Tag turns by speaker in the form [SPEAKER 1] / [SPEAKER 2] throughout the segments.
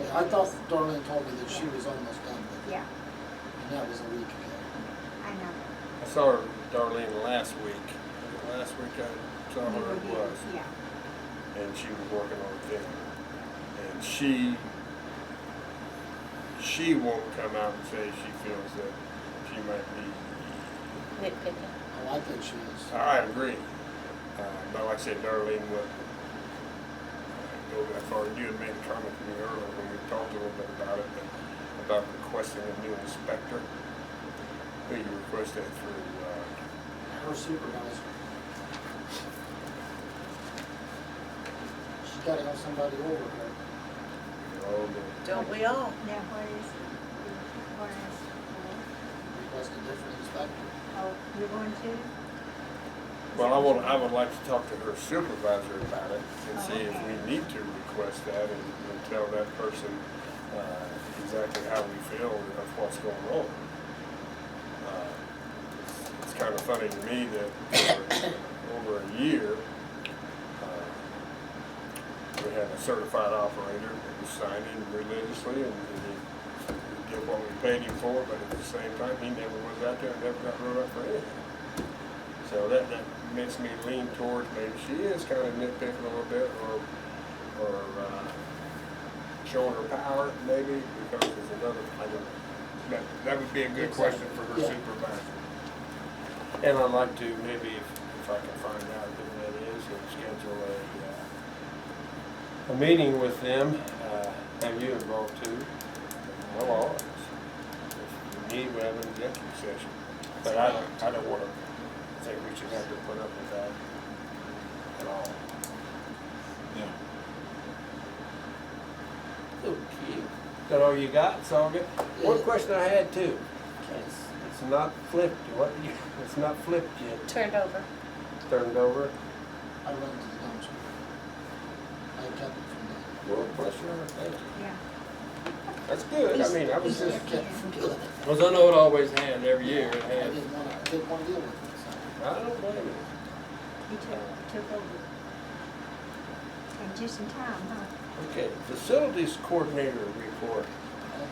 [SPEAKER 1] Yeah, I thought Darlene told me that she was almost done with it,
[SPEAKER 2] Yeah,
[SPEAKER 1] and that was a week ago.
[SPEAKER 2] I know.
[SPEAKER 3] I saw her, Darlene last week. Last week I saw
[SPEAKER 2] We
[SPEAKER 3] her
[SPEAKER 2] were
[SPEAKER 3] it
[SPEAKER 2] here.
[SPEAKER 3] was,
[SPEAKER 2] Yeah,
[SPEAKER 3] and she was working on a thing. And she, she won't come out and say she feels that she might be,
[SPEAKER 4] nitpicking.
[SPEAKER 1] Oh, I think she is.
[SPEAKER 3] I agree. Uh, but like I said, Darlene would uh, go that far. You had made a comment to me earlier when we talked a little bit about it, but about requesting a new inspector. Who you requested through, uh,
[SPEAKER 1] Her supervisor. She's gotta have somebody over her.
[SPEAKER 3] all the
[SPEAKER 4] Don't we all?
[SPEAKER 2] now what is, what is,
[SPEAKER 1] Request a different inspector.
[SPEAKER 2] oh, you're going to?
[SPEAKER 3] Well, I would, I would like to talk to her supervisor about it and
[SPEAKER 2] Oh,
[SPEAKER 3] see if
[SPEAKER 2] okay.
[SPEAKER 3] we need to request that and, and tell that person, uh, exactly how we feel of what's going on. Uh, it's- It's kind of funny to me that for over a year, uh, we had a certified operator that was signed in religiously and he he did what we paid him for, but at the same time, he never was out there and never got wrote up for anything. So that, that makes me lean towards maybe she is kind of nitpicking a little bit or, or, uh, showing her power maybe because there's another, I don't know. That, that would be a good question for her
[SPEAKER 1] Yeah.
[SPEAKER 3] supervisor. And I'd like to maybe if, if I can find out who that is and schedule a, uh, a meeting with them, uh, have you involved too? Well, all of us. If you need, we have an executive session. But I don't, I don't wanna think we should have to put up with that at all.
[SPEAKER 5] Okay.
[SPEAKER 3] That all you got, Soga? One
[SPEAKER 1] Yeah.
[SPEAKER 3] question I had too. It's, it's not flipped, what, you- it's not flipped yet,
[SPEAKER 4] Turned over.
[SPEAKER 3] turned over.
[SPEAKER 1] I run to the dumpster. I kept it from there.
[SPEAKER 3] Well, question, I thank you.
[SPEAKER 2] Yeah.
[SPEAKER 3] That's good, I mean, I was
[SPEAKER 1] He
[SPEAKER 3] just,
[SPEAKER 1] just kept from doing it.
[SPEAKER 5] Because I know it always had every year, it
[SPEAKER 1] I
[SPEAKER 5] had.
[SPEAKER 1] didn't wanna, I didn't wanna deal with it, so.
[SPEAKER 3] I don't blame you.
[SPEAKER 2] He took, took over. And just in time, huh?
[SPEAKER 3] Okay, facilities coordinator report,
[SPEAKER 1] uh,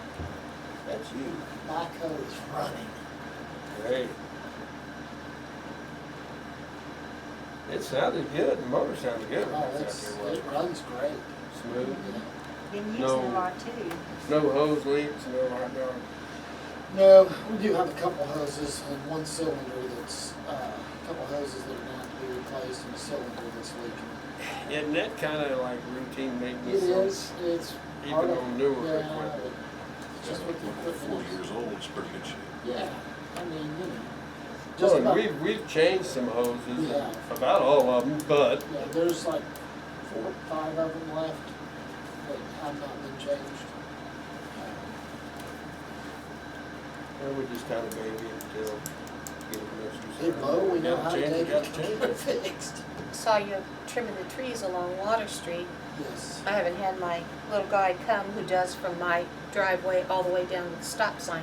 [SPEAKER 3] that's you.
[SPEAKER 1] My code is running.
[SPEAKER 3] Great. It sounded good, the motor sounded good.
[SPEAKER 1] Oh, it's, it runs great.
[SPEAKER 3] Smooth.
[SPEAKER 1] Yeah.
[SPEAKER 2] Been using
[SPEAKER 3] No.
[SPEAKER 2] a lot too.
[SPEAKER 3] No hose leaks, no hot dog.
[SPEAKER 1] No, we do have a couple hoses and one cylinder that's, uh, a couple hoses that are going to have to be replaced and a cylinder that's leaking.
[SPEAKER 3] Isn't that kinda like routine
[SPEAKER 1] It
[SPEAKER 3] maintenance?
[SPEAKER 1] is, it's.
[SPEAKER 3] Even
[SPEAKER 1] part of-
[SPEAKER 3] on newer
[SPEAKER 1] yeah,
[SPEAKER 3] equipment.
[SPEAKER 1] it's Just with the
[SPEAKER 6] Four
[SPEAKER 1] equipment.
[SPEAKER 6] years old, it's pretty good shape.
[SPEAKER 1] Yeah, I mean, you know, just
[SPEAKER 3] Well,
[SPEAKER 1] about,
[SPEAKER 3] we've, we've changed some hoses,
[SPEAKER 1] Yeah.
[SPEAKER 3] about all of them, but
[SPEAKER 1] yeah, there's like four, five of them left that have not been changed. Uh,
[SPEAKER 3] uh, we just kind of baby it until get it
[SPEAKER 1] They
[SPEAKER 3] messed
[SPEAKER 1] blow, we know how to
[SPEAKER 3] Gotta
[SPEAKER 1] take
[SPEAKER 3] change
[SPEAKER 1] it,
[SPEAKER 3] gotta
[SPEAKER 1] get
[SPEAKER 3] change
[SPEAKER 1] it fixed.
[SPEAKER 4] Saw you trimming the trees along Water Street.
[SPEAKER 1] Yes,
[SPEAKER 4] I haven't had my little guy come who does from my driveway all the way down to the stop sign.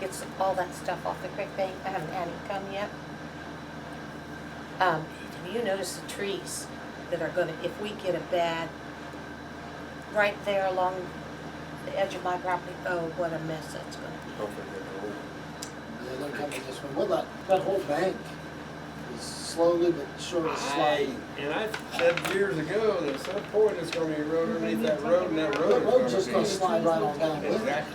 [SPEAKER 4] Gets all that stuff off the creek bank. I haven't had him come yet. Um, have you noticed the trees that are gonna, if we get a bad, right there along the edge of my property, oh, what a mess that's gonna be.
[SPEAKER 3] Hopefully they're old.
[SPEAKER 1] yeah, they're coming this way. Well, that, that whole bank is slowly but surely
[SPEAKER 3] I,
[SPEAKER 1] sliding.
[SPEAKER 3] and I said years ago that at some point it's gonna be a road underneath that road and that
[SPEAKER 1] The
[SPEAKER 3] road
[SPEAKER 1] road's just
[SPEAKER 3] is gonna
[SPEAKER 1] gonna
[SPEAKER 3] be.
[SPEAKER 1] slide right on down with it.
[SPEAKER 3] Exactly.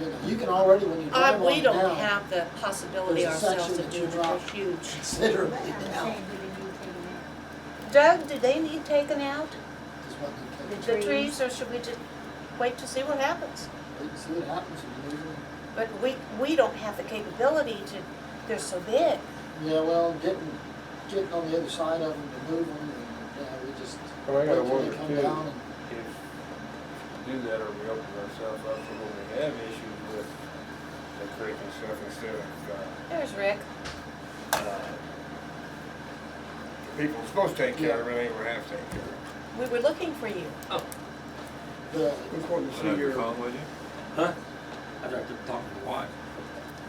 [SPEAKER 1] You know, You can already, when you
[SPEAKER 4] Uh,
[SPEAKER 1] drive
[SPEAKER 4] we
[SPEAKER 1] on
[SPEAKER 4] don't
[SPEAKER 1] down,
[SPEAKER 4] have the possibility
[SPEAKER 1] There's a
[SPEAKER 4] ourselves
[SPEAKER 1] section
[SPEAKER 4] of
[SPEAKER 1] that you
[SPEAKER 4] doing it,
[SPEAKER 1] drop.
[SPEAKER 4] they're huge.
[SPEAKER 1] considerably
[SPEAKER 2] But I'm
[SPEAKER 1] down.
[SPEAKER 2] saying, did you take
[SPEAKER 4] Doug, do they need taken out,
[SPEAKER 1] Just what you
[SPEAKER 2] The
[SPEAKER 4] the
[SPEAKER 2] trees.
[SPEAKER 4] trees, or should we just wait to see what happens?
[SPEAKER 1] can- wait and see what happens if you lose them.
[SPEAKER 4] But we, we don't have the capability to, they're so big.
[SPEAKER 1] Yeah, well, getting, getting on the other side of them to move them, and, yeah, we just
[SPEAKER 3] Well, Oh, I
[SPEAKER 1] wait
[SPEAKER 3] gotta
[SPEAKER 1] till
[SPEAKER 3] wonder
[SPEAKER 1] they come
[SPEAKER 3] too.
[SPEAKER 1] down and.
[SPEAKER 3] If we do that, or we open ourselves up to when we have issues with the creek and stuff instead of, uh,
[SPEAKER 4] There's Rick.
[SPEAKER 3] uh, the uh, people supposed to take care of it, they were half taking care of it.
[SPEAKER 4] We were looking for you.
[SPEAKER 1] The,
[SPEAKER 3] Just wanted to
[SPEAKER 6] Is
[SPEAKER 3] see
[SPEAKER 6] that your
[SPEAKER 3] your,
[SPEAKER 6] phone with you?
[SPEAKER 5] Huh? I'd like to talk to the wife.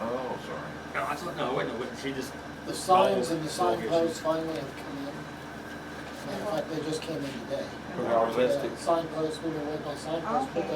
[SPEAKER 6] Oh, sorry.
[SPEAKER 5] No, I thought, no, wait, no, wait, she just,
[SPEAKER 1] the signs and the
[SPEAKER 5] Oh, okay.
[SPEAKER 1] signposts finally have come in. Matter of fact, they just came in today.
[SPEAKER 3] for our
[SPEAKER 1] Yeah,
[SPEAKER 3] listing.
[SPEAKER 1] Signposts, we were waiting on signposts, but
[SPEAKER 2] Okay.